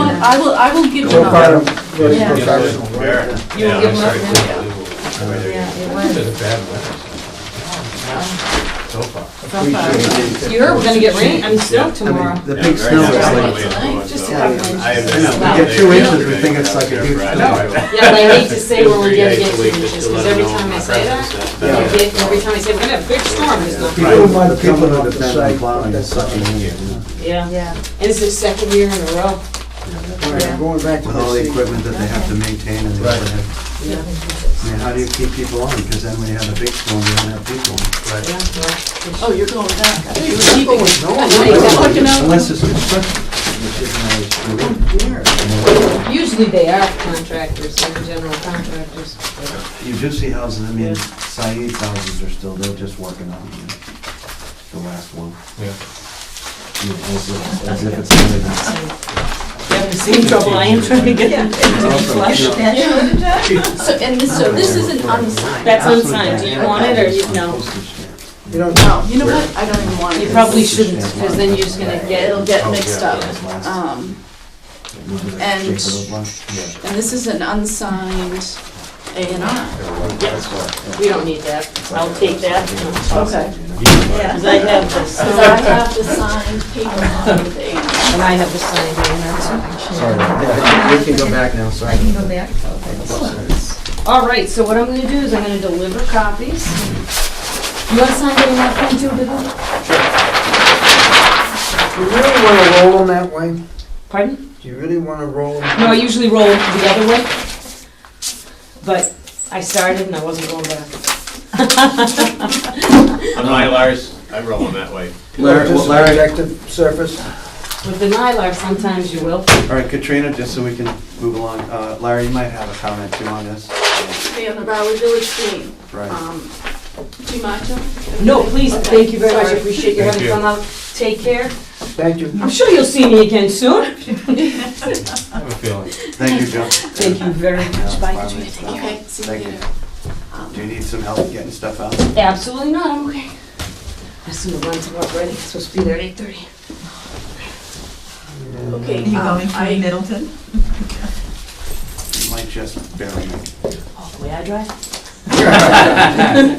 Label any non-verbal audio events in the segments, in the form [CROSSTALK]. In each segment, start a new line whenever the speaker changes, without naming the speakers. I will, I will give
So
them
far,
up.
very
Yeah.
professional, right?
You'll
Yeah,
give
I'm
them
sorry,
up
it's
now?
unbelievable.
Yeah, it
It's been
was.
a bad winter. So far.
so far.
Appreciate it.
You're, we're gonna get rain, I'm
Yeah.
stoked
I mean,
tomorrow.
The
Yeah,
big
very
snow
nice.
is
Right.
like,
Tonight, just
Yeah.
outrageous.
I have
know,
been-
we get two
they-
inches, we
they-
think it's like a huge
Right.
Yeah,
snow.
but I hate to
Just
say when we're
three
gonna
days
get
a week,
two
just to
inches,
let
because
them
every
know
time
my
I say
presence
that,
is
Yeah.
better.
you get, every time I say, we're gonna have a big storm, it's not.
people might have
People
come
off
up
the
to
site,
site, plowing and
that's not
sucking
an
in,
issue.
Yeah, and
Yeah,
it's the second year in a row.
All right, I'm going back to
with all the
the
equipment that they have to maintain and they
Right.
don't have-
Yeah,
I mean, how do you keep people on? Because then when you have a big storm, you don't have people.
yeah,
Right.
yeah.
oh, you're going back. I thought you
Keep
were
it.
going
Yeah, exactly.
Unless it's construction, which isn't always true.
nowhere.
Oh, Usually they are contractors, they're general contractors.
You do see houses, I mean,
Yeah.
Saeed houses are still, they're just working on, you know, the last one.
Yeah.
You know, As if as if it's really not.
Having seen trouble, I am trying to get them
But
to be
also,
flush.
you know,
So, and this, so this isn't unsigned?
That's
absolutely
unsigned. Do you
bad
want it or you-
on
no?
postage stamp.
You don't,
No, you know what, I don't even want it.
You probably shouldn't, because then you're just gonna
It'll
get,
get
Oh,
mixed
yeah.
up.
Last-
Um,
you know, the
and-
shape of those lots. Yeah.
and this is an unsigned A and
Ah.
R.
we don't need that. I'll take that.
Okay.
You know?
Because I have this,
Because I have the signed paper on the A
[LAUGHS]
and R.
and I have the signed A
Sorry, yeah, we can go back now, sorry.
All right, so what I'm gonna do is I'm gonna deliver copies. You want to sign it in that form too, Bill?
do you really wanna roll them that way?
Pardon?
Do you really wanna roll them?
No, I usually roll it the other way. But I started and I wasn't going back.
On Mylars, I roll them that way.
Larry, well,
Just
Larry,
objective surface?
With the Mylar, sometimes you will.
all right, Katrina, just so we can move along, uh, Larry, you might have a comment too on this.
Okay, on the Broward Village thing,
Right.
um, do you mind, Joe?
No, please,
Okay,
thank you very much, I
sorry.
appreciate you
Thank
having
you.
come out. Take care.
Thank you.
I'm sure you'll see me again soon.
I have a feeling.
Thank you, Joe.
Thank you very much. Bye.
Okay, see
Thank
you
you.
later. Um,
Do you need some help getting stuff out?
Absolutely not, I'm okay. I just need to run to work ready, it's supposed to be there at eight thirty.
Okay,
You
um,
going
I-
to Middleton?
You might just barely make it.
Oh, the way I drive.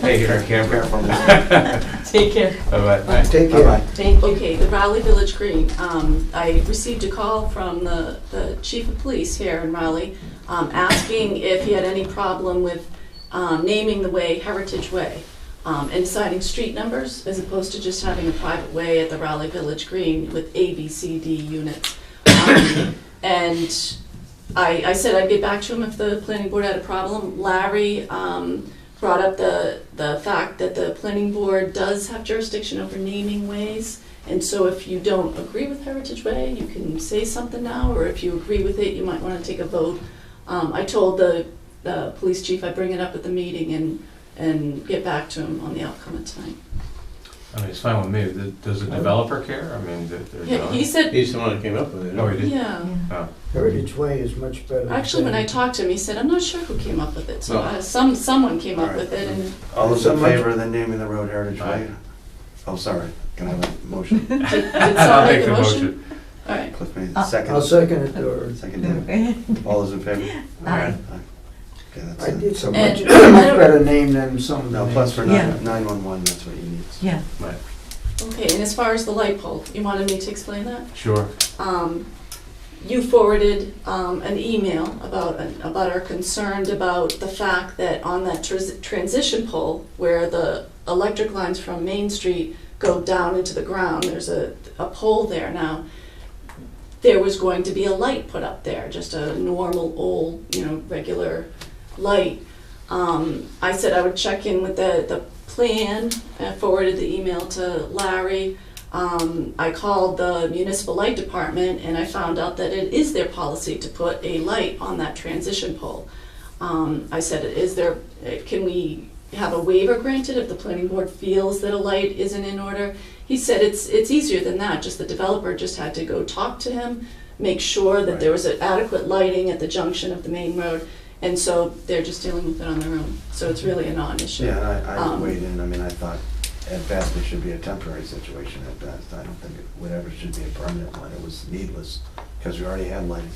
Hey, you're a camper.
Careful.
Take care.
Bye-bye. Bye.
Take care.
Bye-bye.
Thank you.
Okay, the Raleigh Village Green. Um, I received a call from the, the chief of police here in Raleigh, um, asking if he had any problem with, um, naming the way Heritage Way, um, and assigning street numbers as opposed to just having a private way at the Raleigh Village Green with A, B, C, D units. Um, And I, I said I'd get back to him if the planning board had a problem. Larry, um, brought up the, the fact that the planning board does have jurisdiction over naming ways. And so if you don't agree with Heritage Way, you can say something now, or if you agree with it, you might want to take a vote. Um, I told the, the police chief I'd bring it up at the meeting and, and get back to him on the outcome of time.
I mean, it's fine with me. Th- Does the developer care? I mean, th- they're.
Yeah,
done.
he said,
He's the one that came up with it. Oh, he did?
yeah,
Heritage Way is much better. than
actually, when I
saying-
talked to him, he said, I'm not sure who came up with it, so
No.
uh, some, someone came up
All
with it, and
All those in
Someone-
favor of the naming the road Heritage Way? Oh, sorry, can I have a motion?
[LAUGHS]
did did someone
I'll
make
make
the
the
motion?
motion.
All right,
Cliff made the
I'll
second.
second it, or,
Second, David. All those in favor?
Aye.
Okay, that's
I
it.
did so much,
And-
much better name than some of the
No,
names.
plus for
Yeah.
nine- 911, that's what you need.
Yeah.
okay, and as far as the light pole, you wanted me to explain that?
Sure.
um, you forwarded um, an email about, about our concern about the fact that on that tris- transition pole where the electric lines from Main Street go down into the ground, there's a, a pole there now. There was going to be a light put up there, just a normal old, you know, regular light. Um, I said I would check in with the, the plan, I forwarded the email to Larry. Um, I called the municipal light department and I found out that it is their policy to put a light on that transition pole. Um, I said, is there, eh, can we have a waiver granted if the planning board feels that a light isn't in order? He said it's, it's easier than that, just the developer just had to go talk to him, make sure that there was adequate lighting at the junction of the main road. And so they're just dealing with it on their own, so it's really a non-issue.
Yeah, and I, I
Um,
weighed in, I mean, I thought at best it should be a temporary situation at best. I don't think it, whatever should be a permanent one, it was needless, because we already had lighting